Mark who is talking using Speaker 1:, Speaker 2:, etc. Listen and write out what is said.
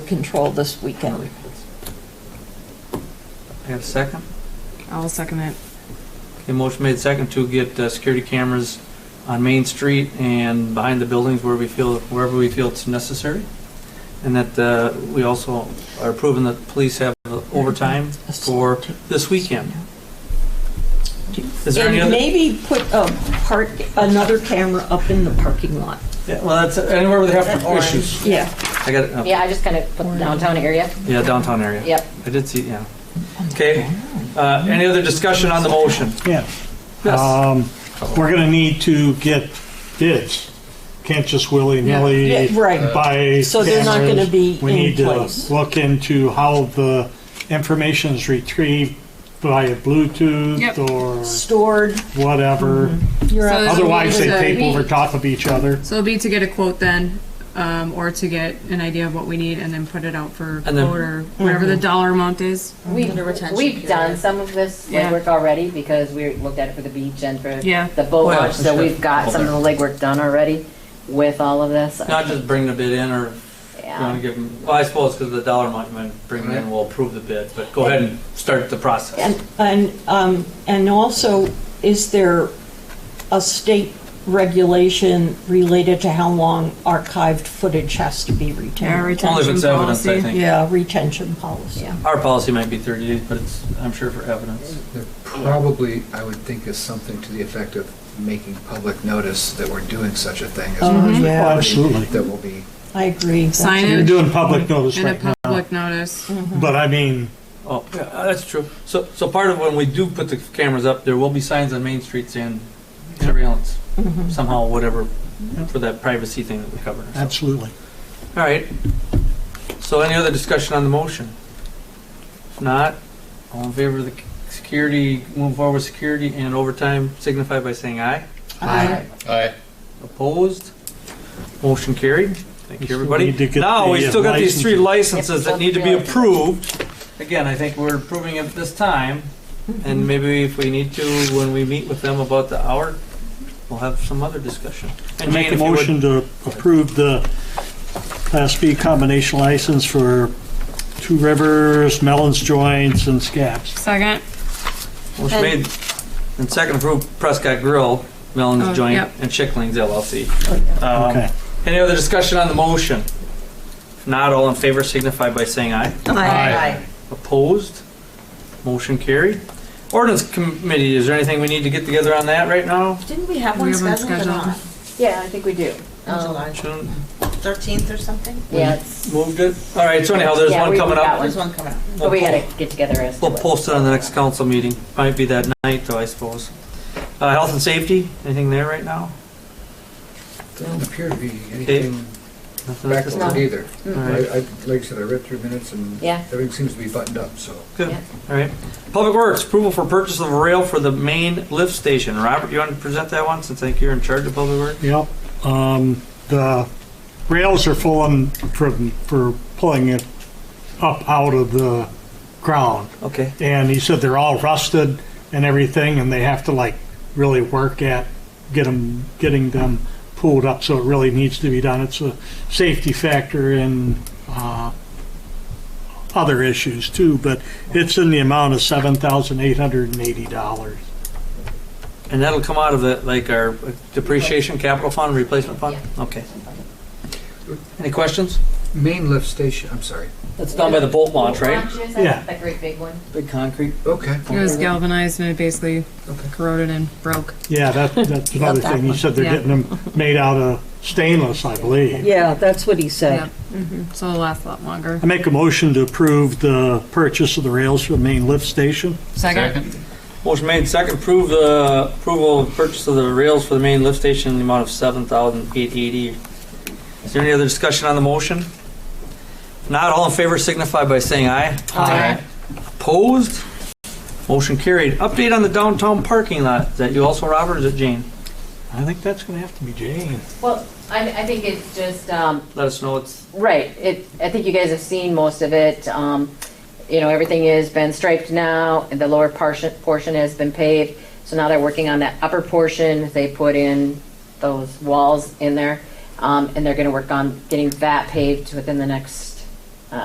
Speaker 1: control this weekend.
Speaker 2: I have a second?
Speaker 3: I'll second it.
Speaker 2: Okay, motion made second to get uh, security cameras on Main Street and behind the buildings where we feel, wherever we feel it's necessary. And that uh, we also are proving that police have uh, overtime for this weekend. Is there
Speaker 1: And
Speaker 2: any other?
Speaker 1: maybe put a park, another camera up in the parking lot.
Speaker 2: Yeah, Well, that's anywhere where they have issues.
Speaker 1: Yeah.
Speaker 2: I got it. uh,
Speaker 4: Yeah, I just kind of put the downtown area.
Speaker 2: Yeah, downtown area.
Speaker 4: Yep.
Speaker 2: I did see, yeah. Okay, uh, any other discussion on the motion?
Speaker 5: Yeah.
Speaker 2: Yes.
Speaker 5: Um, We're going to need to get bids. Can't just willy-nilly
Speaker 1: Yeah, right.
Speaker 2: uh,
Speaker 5: buy
Speaker 1: So they're not
Speaker 5: cameras.
Speaker 1: gonna be
Speaker 5: We
Speaker 1: in
Speaker 5: need
Speaker 1: place.
Speaker 5: to look into how the information is retrieved via Bluetooth
Speaker 3: Yep.
Speaker 5: or
Speaker 1: Stored,
Speaker 5: whatever.
Speaker 1: you're
Speaker 3: So
Speaker 1: up.
Speaker 3: there's a
Speaker 5: Otherwise, they
Speaker 3: little bit
Speaker 5: tape
Speaker 3: of-
Speaker 5: over top of each other.
Speaker 3: So it'll be to get a quote then, um, or to get an idea of what we need and then put it out for
Speaker 2: And then-
Speaker 3: quote or whatever
Speaker 5: Mm-hmm.
Speaker 3: the dollar amount is.
Speaker 4: We've,
Speaker 6: Under retention
Speaker 4: we've
Speaker 6: period.
Speaker 4: done some of this
Speaker 3: Yeah.
Speaker 4: legwork already because we looked at it for the beach and for
Speaker 3: Yeah.
Speaker 4: the boat
Speaker 2: Oh, yeah,
Speaker 4: launch.
Speaker 2: for
Speaker 4: So
Speaker 2: sure.
Speaker 4: we've got some of the legwork done already with all of this.
Speaker 2: Not just bring the bid in or you want to
Speaker 4: Yeah.
Speaker 2: give them, well, I suppose because of the dollar amount, you might bring them in, we'll approve the bid, but go ahead and start the process.
Speaker 1: And, and, um, and also, is there a state regulation related to how long archived footage has to be
Speaker 3: Our
Speaker 1: retained?
Speaker 2: Only if
Speaker 3: retention
Speaker 2: it's evidence, I
Speaker 3: policy.
Speaker 2: think.
Speaker 1: Yeah, retention policy.
Speaker 4: Yeah.
Speaker 2: Our policy might be 30 days, but it's, I'm sure for evidence.
Speaker 7: There probably, I would think, is something to the effect of making public notice that we're doing such a thing. as
Speaker 3: Mm-hmm.
Speaker 7: well as
Speaker 1: Mhm.
Speaker 7: we-
Speaker 1: Yeah.
Speaker 5: Absolutely.
Speaker 7: That will be,
Speaker 1: I agree. That's
Speaker 3: Sign
Speaker 1: a-
Speaker 5: You're doing public notice
Speaker 3: And a
Speaker 5: right now. Mm-hmm.
Speaker 3: public Mm-hmm. notice.
Speaker 5: But I mean,
Speaker 2: Oh, yeah, that's true. So, so part of when we do put the cameras up, there will be signs on Main Streets and surveillance,
Speaker 1: Mm-hmm.
Speaker 2: somehow, whatever, for that privacy thing that we covered.
Speaker 5: absolutely.
Speaker 2: All right. So any other discussion on the motion? If not, all in favor of the security, move forward with security and overtime, signify by saying aye.
Speaker 1: I-
Speaker 8: Aye.
Speaker 2: Opposed? Motion carried.
Speaker 5: We
Speaker 2: Thank you,
Speaker 5: still
Speaker 2: everybody.
Speaker 5: need to get
Speaker 2: Now, we
Speaker 5: the, uh,
Speaker 2: still got these three licenses
Speaker 4: Yep,
Speaker 2: that need to be
Speaker 4: don't feel
Speaker 2: approved. Again, I think we're approving it this time, and maybe if we need to, when we meet with them about the hour, we'll have some other discussion.
Speaker 5: I
Speaker 2: And
Speaker 5: Make
Speaker 2: Jane,
Speaker 5: a
Speaker 2: if you would-
Speaker 5: motion to approve the Class B combination license for Two Rivers, Melons Joints, and Scabs.
Speaker 3: Second.
Speaker 2: Motion made and second approved Prescott Grill,
Speaker 3: Oh,
Speaker 2: Melon's Joint,
Speaker 3: yep. Oh,
Speaker 2: and Chicklings LLC.
Speaker 5: Okay.
Speaker 2: Um, Any other discussion on the motion? If Not all in favor signify by saying aye.
Speaker 8: Aye.
Speaker 2: Opposed? Motion carried. Ordinance Committee, is there anything we need to get together on that right now?
Speaker 6: Didn't we have
Speaker 3: We
Speaker 6: one
Speaker 3: have one
Speaker 6: scheduled or
Speaker 3: scheduled.
Speaker 6: not?
Speaker 4: Yeah, I think we do.
Speaker 6: In
Speaker 4: Um,
Speaker 6: July,
Speaker 2: Shouldn't-
Speaker 6: 13th or something?
Speaker 4: Yeah, it's,
Speaker 2: Moved it? All right, so anyhow, there's
Speaker 4: Yeah,
Speaker 2: one
Speaker 4: we-
Speaker 2: coming
Speaker 4: we got
Speaker 2: up.
Speaker 4: one.
Speaker 6: There's one coming up.
Speaker 4: but we gotta get together as to
Speaker 2: We'll
Speaker 4: what-
Speaker 2: post it on the next council meeting. Might be that night though, I suppose. Uh, Health and Safety, anything there right now?
Speaker 7: doesn't appear to be anything
Speaker 2: Nothing at this
Speaker 7: backlogged
Speaker 2: time?
Speaker 7: either.
Speaker 2: All right.
Speaker 7: I, I, like I said, I read through minutes and
Speaker 4: Yeah.
Speaker 7: everything seems to be buttoned up, so.
Speaker 2: Good,
Speaker 4: Yeah.
Speaker 2: all right. Public Works, approval for purchase of a rail for the main lift station. Robert, you want to present that one, since I think you're in charge of Public Works?
Speaker 5: Yep. Um, the rails are full on for, for pulling it up out of the ground.
Speaker 2: Okay.
Speaker 5: And he said they're all rusted and everything, and they have to like really work at get 'em- getting them pulled up. So it really needs to be done. It's a safety factor and uh, other issues too. But it's in the amount of seven thousand eight hundred and eighty dollars.
Speaker 2: And that'll come out of the, like, our depreciation capital fund, replacement fund? Okay. Any questions?
Speaker 7: Main lift station, I'm sorry.
Speaker 2: That's down by the bolt launch, right?
Speaker 4: Launches,
Speaker 5: Yeah.
Speaker 4: That great big one.
Speaker 2: Big concrete.
Speaker 7: Okay.
Speaker 3: It was galvanized and it basically
Speaker 7: Okay.
Speaker 3: corroded and broke.
Speaker 5: Yeah, that, that's another
Speaker 1: that
Speaker 5: thing. He
Speaker 1: one.
Speaker 5: said they're
Speaker 3: Yeah.
Speaker 5: getting them made out of stainless, I believe.
Speaker 1: Yeah, that's what he
Speaker 3: Yeah.
Speaker 1: said.
Speaker 3: So it'll last a lot longer.
Speaker 5: I make a motion to approve the purchase of the rails for the main lift station.
Speaker 3: Second.
Speaker 8: Second.
Speaker 2: Motion made, second, approve the approval of purchase of the rails for the main lift station in the amount of seven thousand eight eighty. Is there any other discussion on the motion? If Not all in favor signify by saying aye.
Speaker 8: Aye.
Speaker 2: Opposed? Motion carried. Update on the downtown parking lot. Is that you also, Robert, or is it Jane?
Speaker 5: I think that's going to have to be Jane.
Speaker 4: Well, I, I think it's just, um,
Speaker 2: Let us know it's.
Speaker 4: Right. It, I think you guys have seen most of it. Um, you know, everything has been striped now, and the lower portion, portion has been paved. So now they're working on that upper portion. They put in those walls in there, um, and they're going to work on getting that paved within the next